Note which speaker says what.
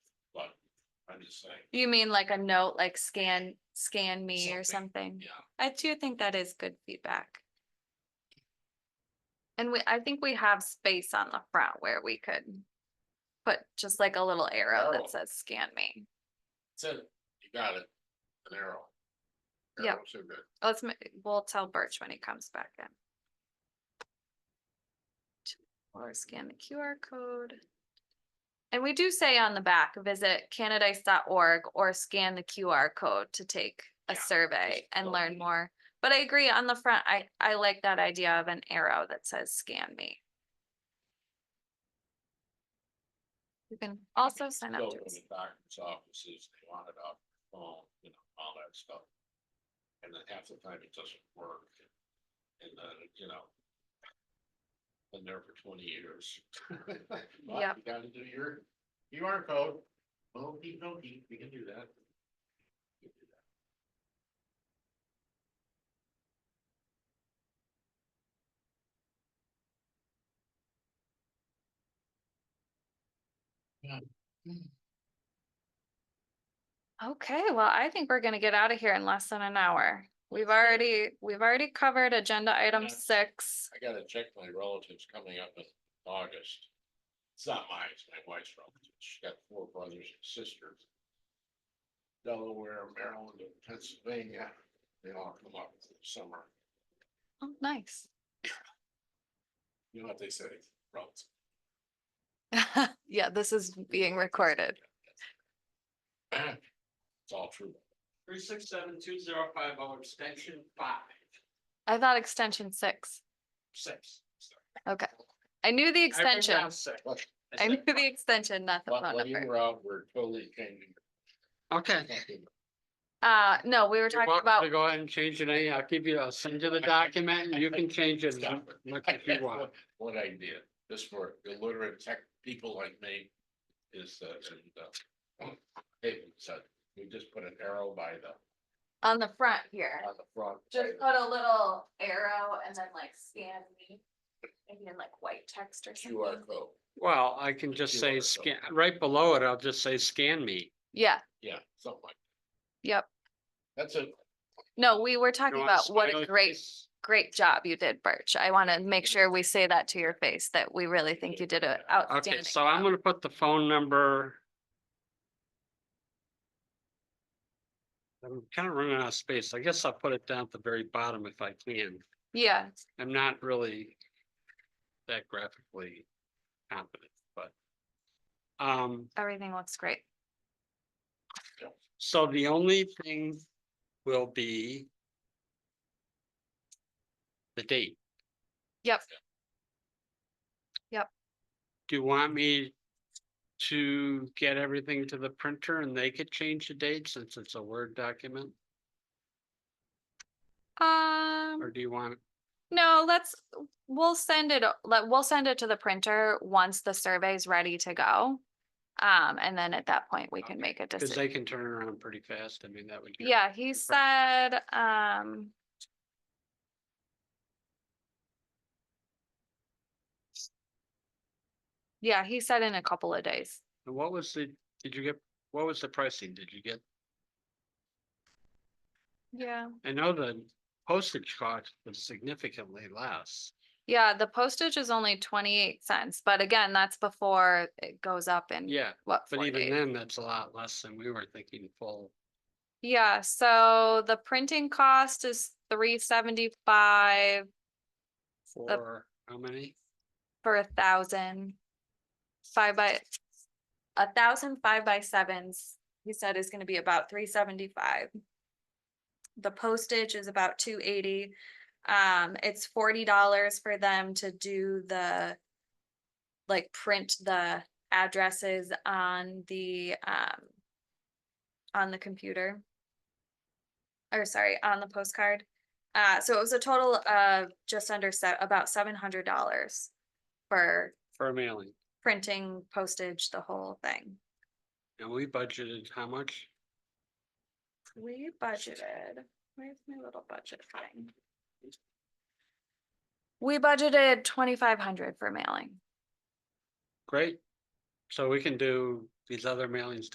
Speaker 1: just like,
Speaker 2: You mean like a note, like scan, scan me or something?
Speaker 1: yeah.
Speaker 2: I do think that is good feedback. And we, I think we have space on the front where we could put just like a little arrow
Speaker 1: Oh.
Speaker 2: that says scan me.
Speaker 1: That's it. You got it. An arrow.
Speaker 2: Yep.
Speaker 1: Arrows are good.
Speaker 2: Let's, ma- we'll tell Birch when he comes back in. Or scan the QR code. And we do say on the back, visit candidice.org or scan the QR code to take a
Speaker 1: Yeah,
Speaker 2: survey
Speaker 1: just
Speaker 2: and
Speaker 1: go.
Speaker 2: learn more. But I agree on the front, I, I like that idea of an arrow that says scan me. You can also sign up
Speaker 1: Go
Speaker 2: to,
Speaker 1: to the doctor's offices, they want it off your phone, you know, all that stuff. And then half the time it doesn't work. And then, you know. Been there for twenty years. Well,
Speaker 2: Yep.
Speaker 1: You gotta do your QR code. Okey dokey, we can do that. We can do that.
Speaker 2: okay, well, I think we're gonna get out of here in less than an hour. We've already, we've already covered agenda item
Speaker 1: Yes.
Speaker 2: six.
Speaker 1: I gotta check my relatives coming up in August. It's not mine, it's my wife's relatives. She's got four brothers and sisters. Delaware, Maryland, and Pennsylvania. They all come up for the summer.
Speaker 2: Oh, nice.
Speaker 1: You know what they say, relatives.
Speaker 2: Yeah, this is being recorded.
Speaker 1: It's all true.
Speaker 3: Three six seven two zero five oh extension five,
Speaker 2: I thought extension six.
Speaker 3: six.
Speaker 2: Okay. I knew the
Speaker 3: I wrote
Speaker 2: extension.
Speaker 3: down six.
Speaker 1: What-
Speaker 2: I knew the extension, not the
Speaker 1: what-
Speaker 2: phone
Speaker 1: When you
Speaker 2: number.
Speaker 1: were out, we're totally changing.
Speaker 3: Okay.
Speaker 2: Uh, no, we were talking about,
Speaker 3: Go ahead and change your name. I'll give you, I'll send you the document and you can change it.
Speaker 1: Stop it.
Speaker 3: Look if you want.
Speaker 1: What I did, this for illiterate tech people like me is, uh, and, uh, David said, we just put an arrow by the,
Speaker 2: on the front here,
Speaker 1: on the front.
Speaker 2: just put a little arrow and then like scan me. Maybe in like white text or
Speaker 1: QR
Speaker 2: something.
Speaker 1: code.
Speaker 3: Well, I can just say
Speaker 1: QR
Speaker 3: scan, right below it, I'll just say scan me.
Speaker 2: Yeah,
Speaker 1: Yeah, something like,
Speaker 2: yep.
Speaker 1: that's it.
Speaker 2: No, we were
Speaker 3: You
Speaker 2: talking
Speaker 3: want
Speaker 2: about what a
Speaker 3: smiley
Speaker 2: great,
Speaker 3: face?
Speaker 2: great job you did, Birch. I want to make
Speaker 1: Yeah.
Speaker 2: sure we say that to your face, that we really think you did an
Speaker 3: Okay,
Speaker 2: outstanding.
Speaker 3: so I'm gonna put the phone number. I'm kind of running out of space. I guess I'll put it down at the very bottom if I can.
Speaker 2: Yeah,
Speaker 3: I'm not really that graphically competent, but. Um,
Speaker 2: everything looks great.
Speaker 3: so the only thing will be the date.
Speaker 2: Yep. Yep.
Speaker 3: Do you want me to get everything to the printer and they could change the date since it's a Word document? Or
Speaker 2: Um,
Speaker 3: do you want,
Speaker 2: no, let's, we'll send it, o- let, we'll send it to the printer once the survey's ready to go. Um, and then at that point, we can
Speaker 3: Okay,
Speaker 2: make a
Speaker 3: because
Speaker 2: decision.
Speaker 3: they can turn around pretty fast. I mean, that would. get-
Speaker 2: Yeah, he said, um. Yeah, he said in a couple of days.
Speaker 3: And what was the, did you get, what was the pricing? Did you get
Speaker 2: Yeah.
Speaker 3: I know the postage cost was significantly less.
Speaker 2: Yeah, the postage is only twenty-eight cents, but again, that's before it goes up in
Speaker 3: Yeah,
Speaker 2: what,
Speaker 3: but
Speaker 2: four
Speaker 3: even
Speaker 2: days?
Speaker 3: then, that's a lot less than we were thinking full.
Speaker 2: Yeah, so the printing cost is three seventy-five
Speaker 3: For how many?
Speaker 2: for a thousand. Five by, a thousand five by sevens, he said is gonna be about three seventy-five. The postage is about two eighty. Um, it's forty dollars for them to do the, like, print the addresses on the, um, on the computer. Or sorry, on the postcard. Uh, so it was a total of just under se- about seven hundred dollars for
Speaker 3: For mailing.
Speaker 2: printing, postage, the whole thing.
Speaker 3: And we budgeted how much?
Speaker 2: We budgeted, where's my little budget thing? We budgeted twenty-five hundred for mailing.
Speaker 3: Great. So we can do these other mailings